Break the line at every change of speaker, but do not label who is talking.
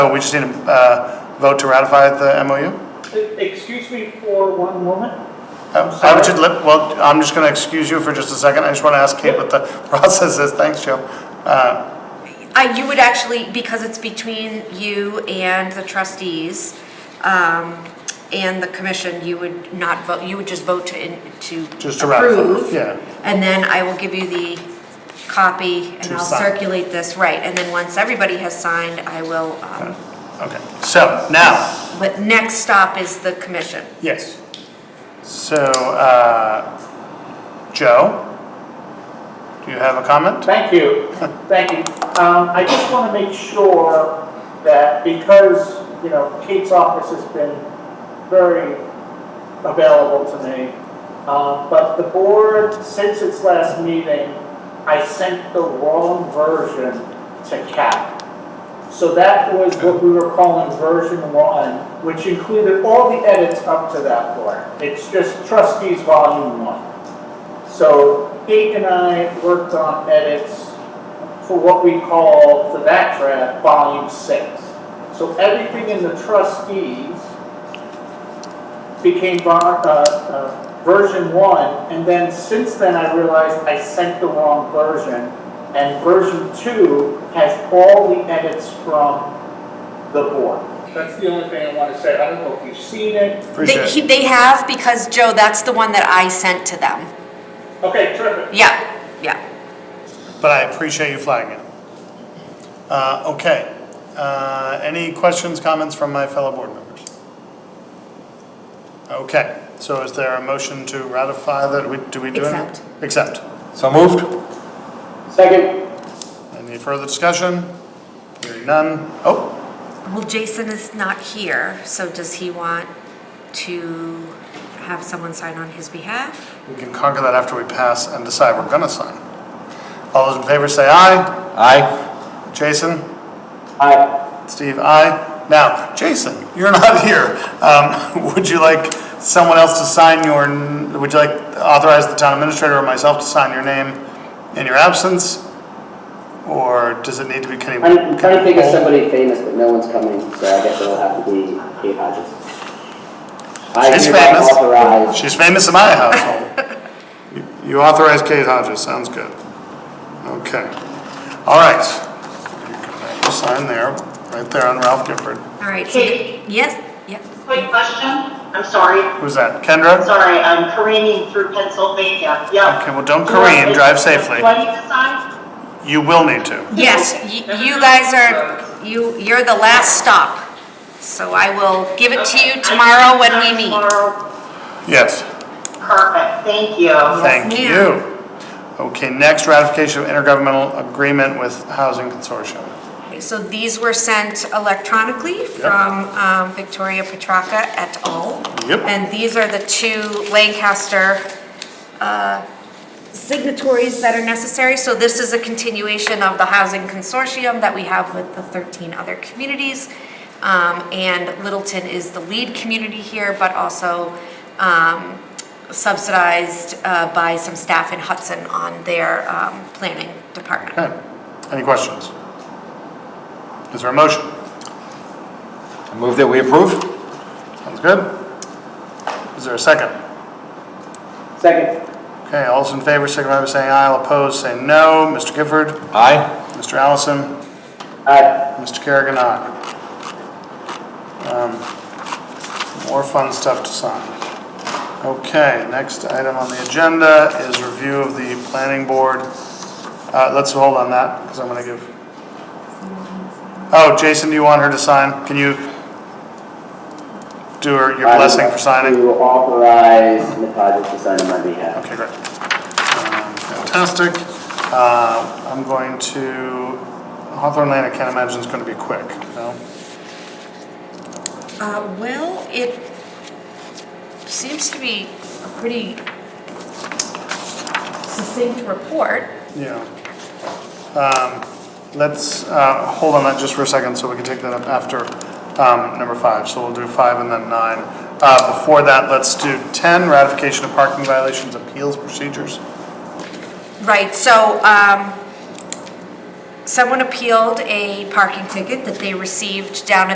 So we just need a uh, vote to ratify the MOU?
Excuse me for one moment.
Uh, I would just let, well, I'm just going to excuse you for just a second. I just want to ask Kate what the process is. Thanks, Joe. Uh,
I, you would actually, because it's between you and the trustees, um, and the commission, you would not vote, you would just vote to, in- to
Just to ratify,
approve.
yeah.
And then I will give you the copy and
To
I'll
sign.
circulate this, right, and then once everybody has signed, I will, um,
Okay, so now,
but next stop is the commission.
yes. So, uh, Joe, do you have a comment?
Thank you, thank you. Um, I just want to make sure that because, you know, Kate's office has been very available to me, um, but the board, since its last meeting, I sent the wrong version to CAP. So that was what we were calling version one, which included all the edits up to that point. It's just trustees volume one. So Kate and I worked on edits for what we call the back draft, volume six. So everything in the trustees became vo- uh, uh, version one, and then since then I realized I sent the wrong version. And version two has all the edits from the board. That's the only thing I want to say. I don't know if you've seen it.
They,
Appreciate
he-
it.
they have, because Joe, that's the one that I sent to them.
Okay, terrific.
Yeah, yeah.
But I appreciate you flagging it. Uh, Okay. Uh, Any questions, comments from my fellow board members? Okay, so is there a motion to ratify that? We- Do we do it?
Accept.
Accept.
So moved?
Second.
Any further discussion? Hearing none. Oh,
Well, Jason is not here, so does he want to have someone sign on his behalf?
we can conquer that after we pass and decide we're gonna sign. All those in favor say aye.
Aye.
Jason?
Aye.
Steve, aye. Now, Jason, you're not here. Um, would you like someone else to sign your, n- would you like authorize the town administrator or myself to sign your name in your absence? Or does it need to be Kenny?
I'm I'm trying to think of somebody famous, but no one's coming, so I guess it'll have to be Kate Hodges. I
She's
hereby
famous.
authorize-
She's famous in my household. You- You authorize Kate Hodges, sounds good. Okay. All right. Sign there, right there on Ralph Gifford.
All right. so-
Kate?
Yes, yes.
Quick question, I'm sorry,
Who's that, Kendra?
sorry, I'm careening through Pennsylvania, yeah.
Okay, well, don't
Do I-
careen, drive safely.
Do I need to sign?
You will need to.
Yes, y- you guys are, you, you're the last stop. So I will give it to
Okay, I
you
can
tomorrow when
sign
we meet.
tomorrow.
Yes.
Perfect, thank you.
Thank
ma'am.
you. Okay, next ratification of intergovernmental agreement with Housing Consortium.
So these were sent electronically from um, Victoria Petracca et al.
Yep.
And these are the two Lancaster uh, signatories that are necessary. So this is a continuation of the housing consortium that we have with the 13 other communities. Um, And Littleton is the lead community here, but also um, subsidized uh, by some staff in Hudson on their um, planning department.
Okay, any questions? Is there a motion?
I Move that we approve?
Sounds good. Is there a second?
Second.
Okay, all those in favor, signify by saying aye, all opposed, say no. Mr. Gifford?
Aye.
Mr. Allison?
Aye.
Mr. Kerrigan, aye. Um, More fun stuff to sign. Okay, next item on the agenda is review of the planning board. Uh, let's hold on that, because I'm gonna give. Oh, Jason, do you want her to sign? Can you do her your
I would
blessing
like
for signing?
To authorize Ms. Hodges to sign on my behalf.
Okay, great. Um, Fantastic. Uh, I'm going to, Hawthorne Lane, I can't imagine it's gonna be quick, no?
Uh, Well, it seems to be a pretty succinct report.
Yeah. Um, Let's uh, hold on that just for a second, so we can take that up after um, number five. So we'll do five and then nine. Uh, Before that, let's do 10, ratification of parking violations appeals procedures.
Right, so um, someone appealed a parking ticket that they received down at